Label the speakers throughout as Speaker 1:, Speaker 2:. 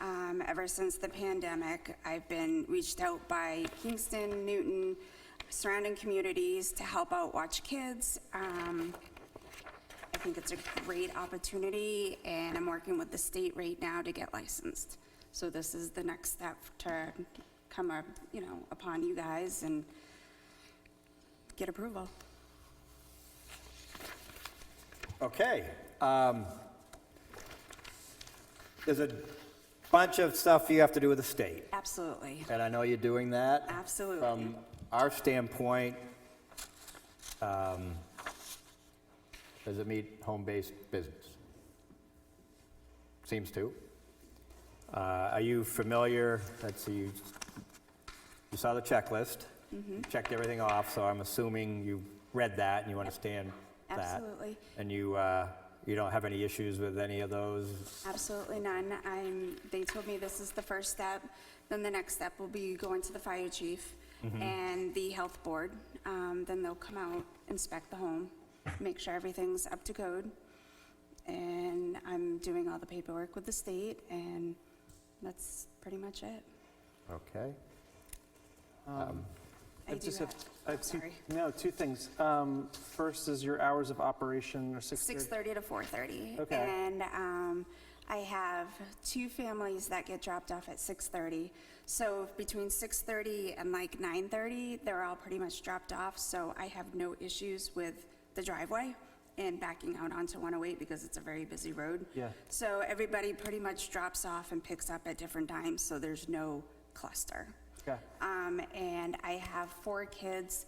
Speaker 1: Um, ever since the pandemic, I've been reached out by Kingston, Newton, surrounding communities to help out Watch Kids. Um, I think it's a great opportunity, and I'm working with the state right now to get licensed. So this is the next step to come up, you know, upon you guys and get approval.
Speaker 2: Okay. um, There's a bunch of stuff you have to do with the state,
Speaker 1: Absolutely.
Speaker 2: and I know you're doing that.
Speaker 1: Absolutely.
Speaker 2: From our standpoint, um, does it meet home-based business? Seems to. Uh, Are you familiar, let's see, you you saw the checklist, you checked everything off, so I'm assuming you read that and you understand that.
Speaker 1: Absolutely.
Speaker 2: And you, uh, you don't have any issues with any of those?
Speaker 1: Absolutely none. I'm, they told me this is the first step. Then the next step will be going to the fire chief and the health board. Um, then they'll come out, inspect the home, make sure everything's up to code. And I'm doing all the paperwork with the state and that's pretty much it.
Speaker 2: Okay.
Speaker 1: I do
Speaker 3: just have-
Speaker 1: have,
Speaker 3: I have two-
Speaker 1: sorry.
Speaker 3: No, two things. Um, First is your hours of operation are 6:30.
Speaker 1: 6:30 to 4:30.
Speaker 3: Okay.
Speaker 1: And um, I have two families that get dropped off at 6:30. So between 6:30 and like 9:30, they're all pretty much dropped off, so I have no issues with the driveway and backing out onto 108 because it's a very busy road.
Speaker 3: Yeah.
Speaker 1: So everybody pretty much drops off and picks up at different times, so there's no cluster.
Speaker 3: Okay.
Speaker 1: Um, and I have four kids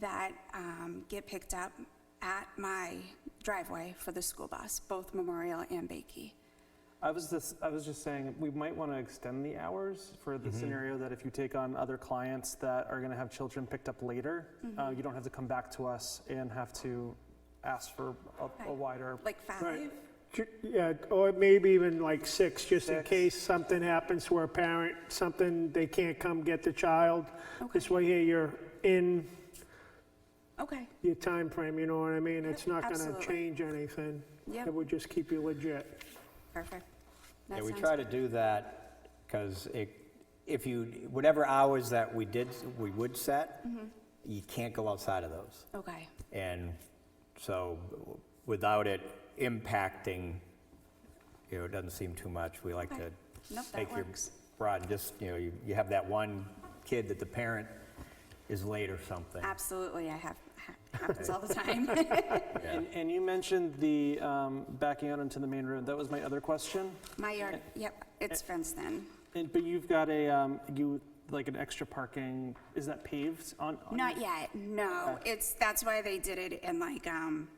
Speaker 1: that, um, get picked up at my driveway for the school bus, both Memorial and Bakey.
Speaker 3: I was this, I was just saying, we might want to extend the hours for the scenario that if you take on other clients that are going to have children picked up later,
Speaker 1: Mm-hmm.
Speaker 3: uh, you don't have to come back to us and have to ask for a- a
Speaker 1: Right.
Speaker 3: wider.
Speaker 1: Like five?
Speaker 4: Ju- Yeah, or maybe even like six, just in
Speaker 3: Six.
Speaker 4: case something happens where a parent, something, they can't come get the child. This
Speaker 1: Okay.
Speaker 4: way here, you're in
Speaker 1: Okay,
Speaker 4: your time frame. you know what I mean? It's not gonna
Speaker 1: Absolutely.
Speaker 4: change anything.
Speaker 1: Yep.
Speaker 4: It would just keep you legit.
Speaker 1: perfect.
Speaker 2: Yeah,
Speaker 1: That
Speaker 2: we
Speaker 1: sounds
Speaker 2: try to do that, because if you, whatever hours that we did, we would set,
Speaker 1: Mm-hmm.
Speaker 2: you can't go outside of those.
Speaker 1: good. Okay,
Speaker 2: And so without it impacting, you know, it doesn't seem too much. We like to
Speaker 1: Okay. Nope, that
Speaker 2: take your
Speaker 1: works.
Speaker 2: broad, and just, you know, you you have that one kid that the parent is late or something.
Speaker 1: absolutely, I have, happens all the time.
Speaker 3: And, and you mentioned the um, backing out into the main room. That was my other question.
Speaker 1: My yard, yep, it's fenced in.
Speaker 3: And, but you've got a, um, you, like an extra parking, is that paved on? on-
Speaker 1: Not yet, no. It's, that's why they did it in like, um,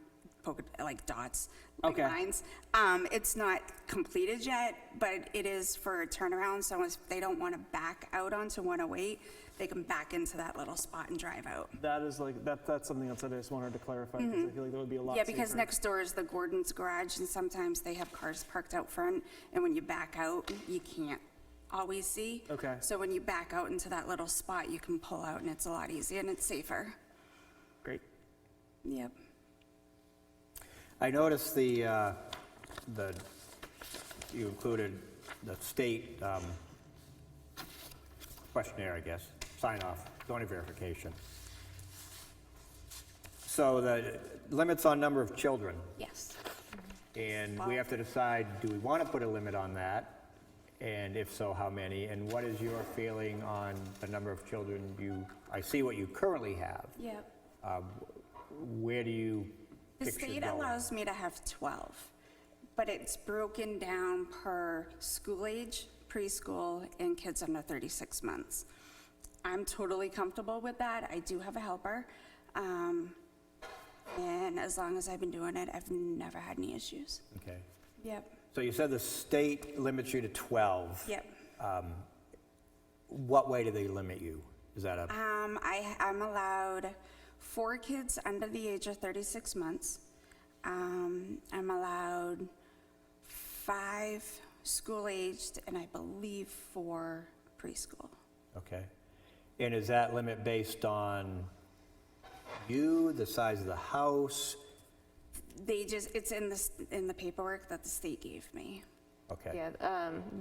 Speaker 1: polka- like dots, like
Speaker 3: Okay.
Speaker 1: lines. Um, it's not completed yet, but it is for a turnaround, so if they don't want to back out onto 108, they can back into that little spot and drive out.
Speaker 3: That is like, that, that's something else that I just wanted to clarify, because I feel like that would be a lot
Speaker 1: Mm-hmm. Yeah,
Speaker 3: safer.
Speaker 1: because next door is the Gordon's Garage, and sometimes they have cars parked out front, and when you back out, you can't always see.
Speaker 3: Okay.
Speaker 1: So when you back out into that little spot, you can pull out, and it's a lot easier, and it's safer.
Speaker 3: Great.
Speaker 1: Yep.
Speaker 2: I noticed the, uh, the, you included the state um, questionnaire, I guess, sign off, zoning verification. So the limits on number of children,
Speaker 1: Yes.
Speaker 2: and we have to decide, do we want to put a limit on that? And if so, how many? And what is your feeling on the number of children you, I see what you currently have.
Speaker 1: Yep.
Speaker 2: Where do you
Speaker 1: The
Speaker 2: picture
Speaker 1: state
Speaker 2: going?
Speaker 1: allows me to have 12, but it's broken down per school age, preschool, and kids under 36 months. I'm totally comfortable with that. I do have a helper. um, And as long as I've been doing it, I've never had any issues.
Speaker 2: Okay.
Speaker 1: Yep,
Speaker 2: So you said the state limits you to 12.
Speaker 1: yep.
Speaker 2: What way do they limit you? Is that a,
Speaker 1: Um, I, I'm allowed four kids under the age of 36 months. Um, I'm allowed five school-aged and I believe four preschool.
Speaker 2: okay. And is that limit based on you, the size of the house?
Speaker 1: They just, it's in the, s- in the paperwork that the state gave me.
Speaker 2: Okay.
Speaker 5: Yeah, um,